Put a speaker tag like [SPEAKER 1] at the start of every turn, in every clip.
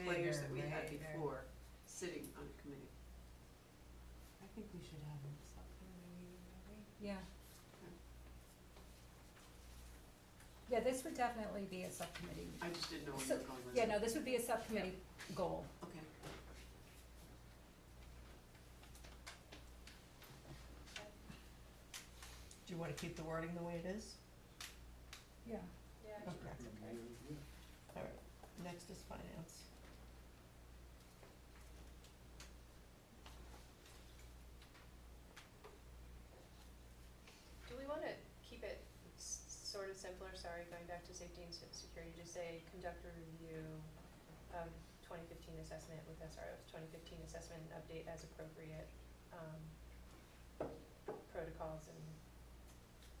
[SPEAKER 1] players that we had
[SPEAKER 2] Right, right.
[SPEAKER 1] before sitting on a committee.
[SPEAKER 2] I think we should have them stop doing their meeting, don't we?
[SPEAKER 3] Yeah. Yeah, this would definitely be a subcommittee.
[SPEAKER 1] I just didn't know where you
[SPEAKER 3] So-
[SPEAKER 1] were going with
[SPEAKER 3] Yeah,
[SPEAKER 1] that.
[SPEAKER 3] no, this would be a subcommittee goal.
[SPEAKER 1] Okay,
[SPEAKER 2] Do you wanna keep the wording the way it is?
[SPEAKER 3] Yeah.
[SPEAKER 2] Okay. Alright, next is finance.
[SPEAKER 4] Do we wanna keep it s- sort of simpler, sorry, going back to safety and se- security, to say conduct a review of twenty fifteen assessment with SROs, twenty fifteen assessment and update as appropriate, um, protocols and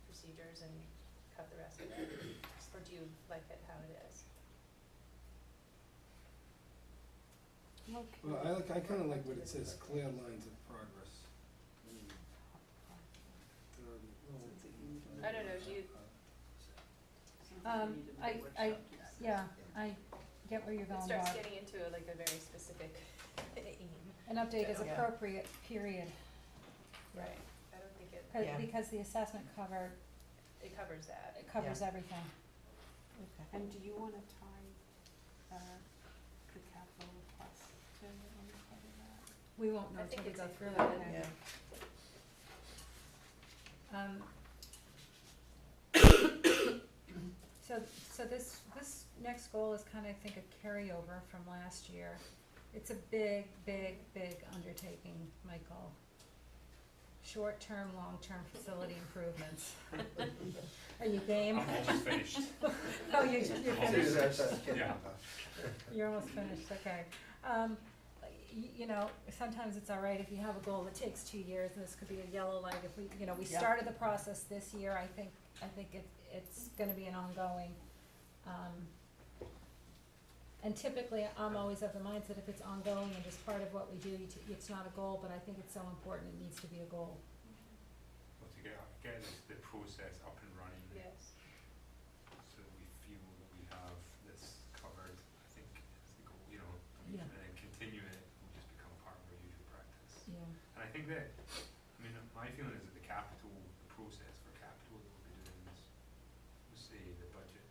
[SPEAKER 4] procedures and cut the rest of it, or do you like it how it is?
[SPEAKER 5] Well, I like, I kinda like what it says, clear lines of progress.
[SPEAKER 1] Sounds like you need to-
[SPEAKER 4] I don't know, do you-
[SPEAKER 1] sounds like
[SPEAKER 3] Um,
[SPEAKER 1] we need to do a
[SPEAKER 3] I, I,
[SPEAKER 1] workshop to discuss.
[SPEAKER 3] yeah, I get where you're
[SPEAKER 4] It
[SPEAKER 3] going,
[SPEAKER 4] starts
[SPEAKER 3] Bob.
[SPEAKER 4] getting into like a very specific aim.
[SPEAKER 3] An update is
[SPEAKER 2] Yeah.
[SPEAKER 3] appropriate, period,
[SPEAKER 4] Right. I don't think it,
[SPEAKER 3] 'Cause-
[SPEAKER 2] Yeah.
[SPEAKER 3] because the assessment cover,
[SPEAKER 4] it covers that.
[SPEAKER 3] it covers everything.
[SPEAKER 2] Okay.
[SPEAKER 6] And do you wanna tie, uh, the capital request to any part of that?
[SPEAKER 3] We won't
[SPEAKER 4] I
[SPEAKER 3] know till
[SPEAKER 4] think
[SPEAKER 3] we
[SPEAKER 4] it's
[SPEAKER 3] go through it,
[SPEAKER 4] included.
[SPEAKER 3] okay.
[SPEAKER 2] Yeah,
[SPEAKER 3] Um, So, so this, this next goal is kind of, I think, a carryover from last year. It's a big, big, big undertaking, Michael. Short-term, long-term facility improvements. Are you game?
[SPEAKER 7] I'm almost finished.
[SPEAKER 3] Oh, you, you're finished,
[SPEAKER 7] Yeah.
[SPEAKER 3] you're almost finished, okay. Um, you, you know, sometimes it's all right if you have a goal that takes two years, and this could be a yellow light, if we, you know, we
[SPEAKER 2] Yeah.
[SPEAKER 3] started the process this year, I think, I think it, it's gonna be an ongoing, um, and typically, I'm always of the mindset if it's ongoing and just part of what we do, you t- it's not a goal, but I think it's so important, it needs to be a goal.
[SPEAKER 7] But to get, get this- the process up and running,
[SPEAKER 4] Yes.
[SPEAKER 7] so that we feel that we have this covered, I think is the goal, you know, I mean,
[SPEAKER 3] Yeah.
[SPEAKER 7] and then continue it, will just become part of our usual practice.
[SPEAKER 3] Yeah.
[SPEAKER 7] And I think that, I mean, my feeling is that the capital, the process for capital that we'll be doing is, we'll say, the budget,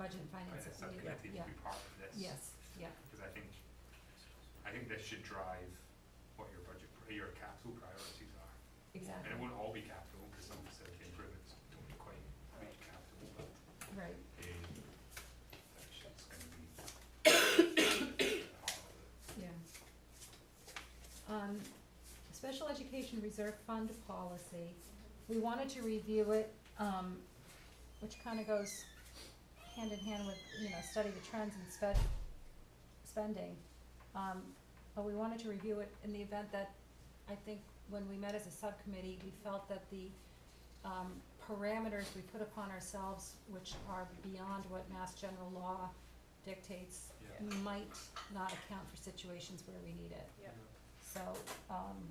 [SPEAKER 3] Budget and finance,
[SPEAKER 7] finance
[SPEAKER 3] yeah,
[SPEAKER 7] subcommittee
[SPEAKER 3] yeah,
[SPEAKER 7] will be part of this.
[SPEAKER 3] yes, yeah,
[SPEAKER 7] Because I think, I think this should drive what your budget, pri- your capital priorities are.
[SPEAKER 3] exactly,
[SPEAKER 7] And it won't all be capital, because some facility improvements don't quite reach capital, but
[SPEAKER 3] right,
[SPEAKER 7] they, that shit's gonna be.
[SPEAKER 3] yeah. Um, special education reserve fund policy, we wanted to review it, um, which kinda goes hand in hand with, you know, study the trends and sped, spending. Um, but we wanted to review it in the event that, I think, when we met as a subcommittee, we felt that the, um, parameters we put upon ourselves, which are beyond what mass general law dictates,
[SPEAKER 7] Yeah.
[SPEAKER 3] might not account for situations where we need it.
[SPEAKER 4] Yeah.
[SPEAKER 3] So, um,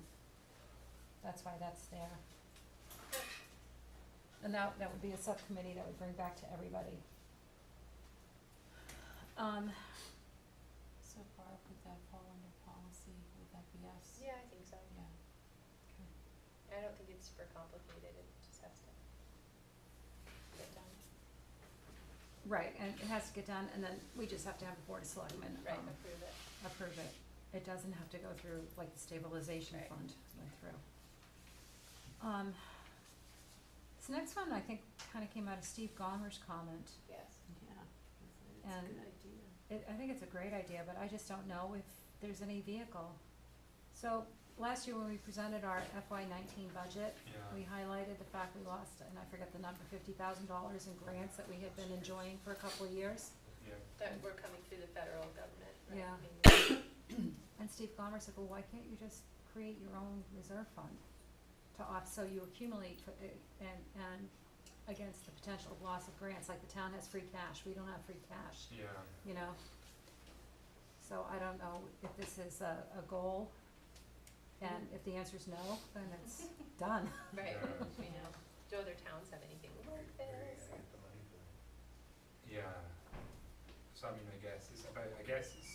[SPEAKER 3] that's why that's there. And that, that would be a subcommittee that would bring back to everybody. Um,
[SPEAKER 6] So far, would that fall under policy, would that be us?
[SPEAKER 4] Yeah, I think so.
[SPEAKER 6] Yeah.
[SPEAKER 4] I don't think it's super complicated, it just has to get done.
[SPEAKER 3] right, and it has to get done, and then we just have to have a board of selectmen,
[SPEAKER 4] Right,
[SPEAKER 3] um,
[SPEAKER 4] approve it.
[SPEAKER 3] approve it. It doesn't have to go through like the stabilization
[SPEAKER 4] Right.
[SPEAKER 3] fund went through. Um, this next one, I think, kinda came out of Steve Gomer's comment.
[SPEAKER 4] Yes.
[SPEAKER 6] Yeah, it's, it's a
[SPEAKER 3] And-
[SPEAKER 6] good idea.
[SPEAKER 3] It, I think it's a great idea, but I just don't know if there's any vehicle. So, last year when we presented our FY nineteen budget,
[SPEAKER 7] Yeah.
[SPEAKER 3] we highlighted the fact we lost, and I forget the number, fifty thousand dollars in grants that we had been enjoying for a couple of years.
[SPEAKER 7] Yeah.
[SPEAKER 4] That we're coming through the federal government, right?
[SPEAKER 3] Yeah.
[SPEAKER 4] I mean,
[SPEAKER 3] And Steve Gomer said, well, why can't you just create your own reserve fund to off, so you accumulate for, uh, and, and against the potential of loss of grants, like the town has free cash, we don't have free cash.
[SPEAKER 7] Yeah.
[SPEAKER 3] you know? So I don't know if this is a, a goal, and if the answer is no, then it's done.
[SPEAKER 4] Right,
[SPEAKER 7] Yeah.
[SPEAKER 4] we know. Do other towns have anything like this?
[SPEAKER 7] Yeah. So I mean, I guess it's about, I guess it's